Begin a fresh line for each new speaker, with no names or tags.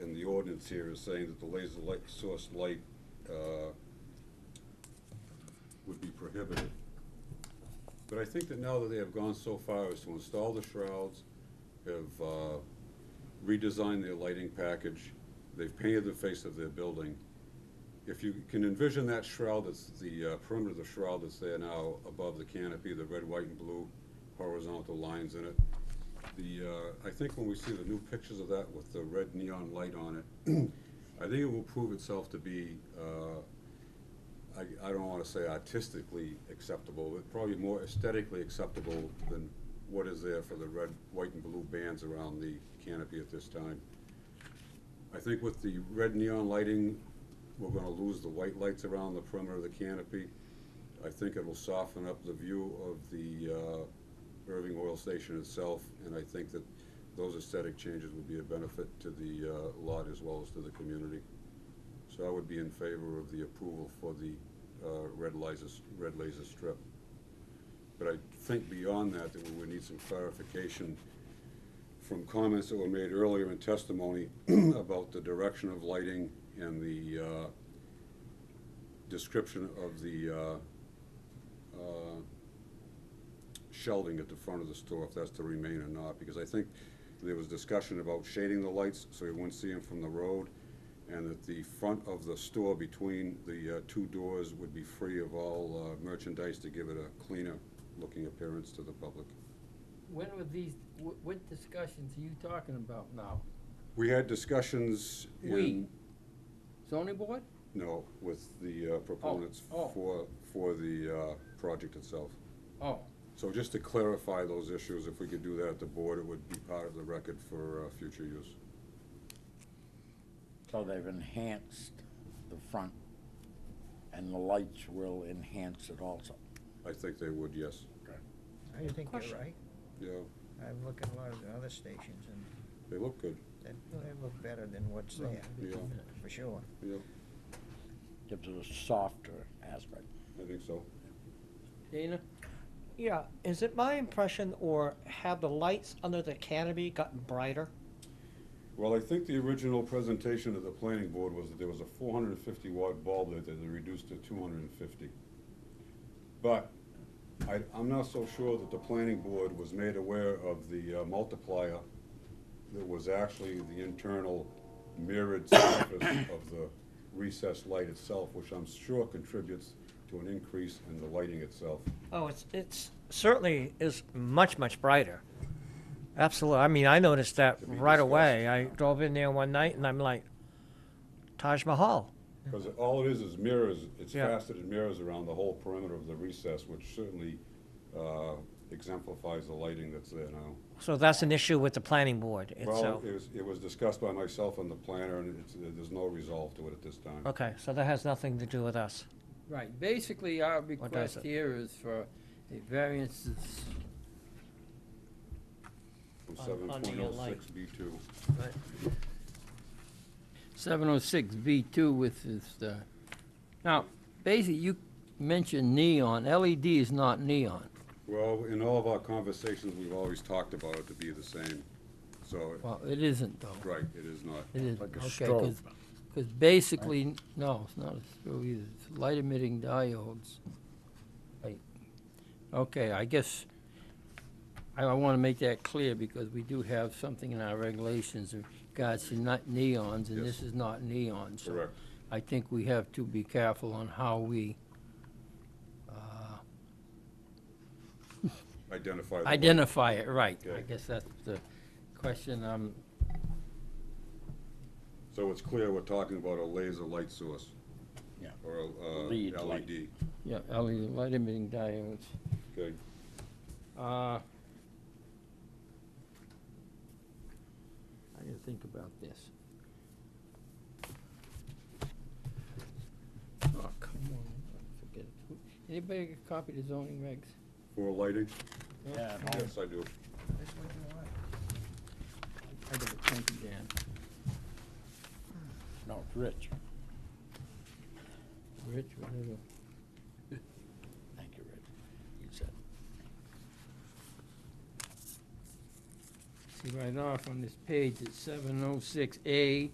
ordinance here is saying that the laser light, source light, uh, would be prohibited. But I think that now that they have gone so far as to install the shrouds, have uh, redesigned their lighting package, they've painted the face of their building, if you can envision that shroud, that's the uh, perimeter of the shroud that's there now above the canopy, the red, white, and blue horizontal lines in it. The, uh, I think when we see the new pictures of that with the red neon light on it, I think it will prove itself to be, uh, I, I don't wanna say artistically acceptable, but probably more aesthetically acceptable than what is there for the red, white, and blue bands around the canopy at this time. I think with the red neon lighting, we're gonna lose the white lights around the perimeter of the canopy. I think it'll soften up the view of the uh, Irving Oil Station itself, and I think that those aesthetic changes would be a benefit to the uh, lot as well as to the community. So I would be in favor of the approval for the uh, red laser, red laser strip. But I think beyond that, that we would need some clarification from comments that were made earlier in testimony about the direction of lighting and the uh, description of the uh, uh, shelving at the front of the store, if that's to remain or not, because I think there was discussion about shading the lights so you wouldn't see them from the road, and that the front of the store between the uh, two doors would be free of all uh, merchandise to give it a cleaner-looking appearance to the public.
When were these, wh- what discussions are you talking about now?
We had discussions in.
We. Zoning board?
No, with the uh, proponents
oh.
for, for the uh, project itself.
Oh,
So just to clarify those issues, if we could do that at the board, it would be part of the record for uh, future use.
So they've enhanced the front, and the lights will enhance it also.
I think they would, yes.
I think
Question.
you're right.
Yeah,
I've looked at a lot of the other stations and
they look good,
they, they look better than what's
Well,
there,
yeah,
for sure.
yeah,
Gives it a softer aspect.
I think so.
Dana?
Yeah, is it my impression or have the lights under the canopy gotten brighter?
Well, I think the original presentation to the planning board was that there was a four hundred and fifty watt bulb that that they reduced to two hundred and fifty. But I, I'm not so sure that the planning board was made aware of the uh, multiplier that was actually the internal mirrored surface of the recessed light itself, which I'm sure contributes to an increase in the lighting itself.
Oh, it's, it's certainly is much, much brighter. Absolutely. I mean, I noticed that
To be
right away. I drove in there one night and I'm like, Taj Mahal.
Because all it is is mirrors, it's
Yeah.
faceted mirrors around the whole perimeter of the recess, which certainly uh, exemplifies the lighting that's there now.
So that's an issue with the planning board
Well,
itself.
it was, it was discussed by myself and the planner, and it's, there's no resolve to it at this time.
Okay, so that has nothing to do with us.
Right, basically our request
it?
here is for a variance is-
From
On- on the
7.06 B2.
706B2 with this, uh, now, basically, you mentioned neon, LED is not neon.
Well, in all of our conversations, we've always talked about it to be the same, so,
Well, it isn't though.
right, it is not.
It isn't,
Like a
okay,
strobe.
because, basically, n- no, it's not a strobe either, it's light emitting diodes. Right. Okay, I guess, I, I wanna make that clear because we do have something in our regulations in regards to not neons, and this is not neon, so.
Correct.
I think we have to be careful on how we uh,
Identify the light.
identify it right. I
Okay.
guess that's the question, um,
So it's clear we're talking about a laser light source.
Yeah.
Or a uh,
Lead light.
LED,
yeah, LED light emitting diodes.
okay?
Uh, I didn't think about this. Oh, come on, forget it. Anybody get a copy of the zoning regs?
For lighting?
Yeah,
Yes, I do.
This one you want.
I got it, thank you, Dan.
no, it's Rich.
Rich, whatever.
Thank you, Rich. You said,
See right off on this page, it's seven oh six A,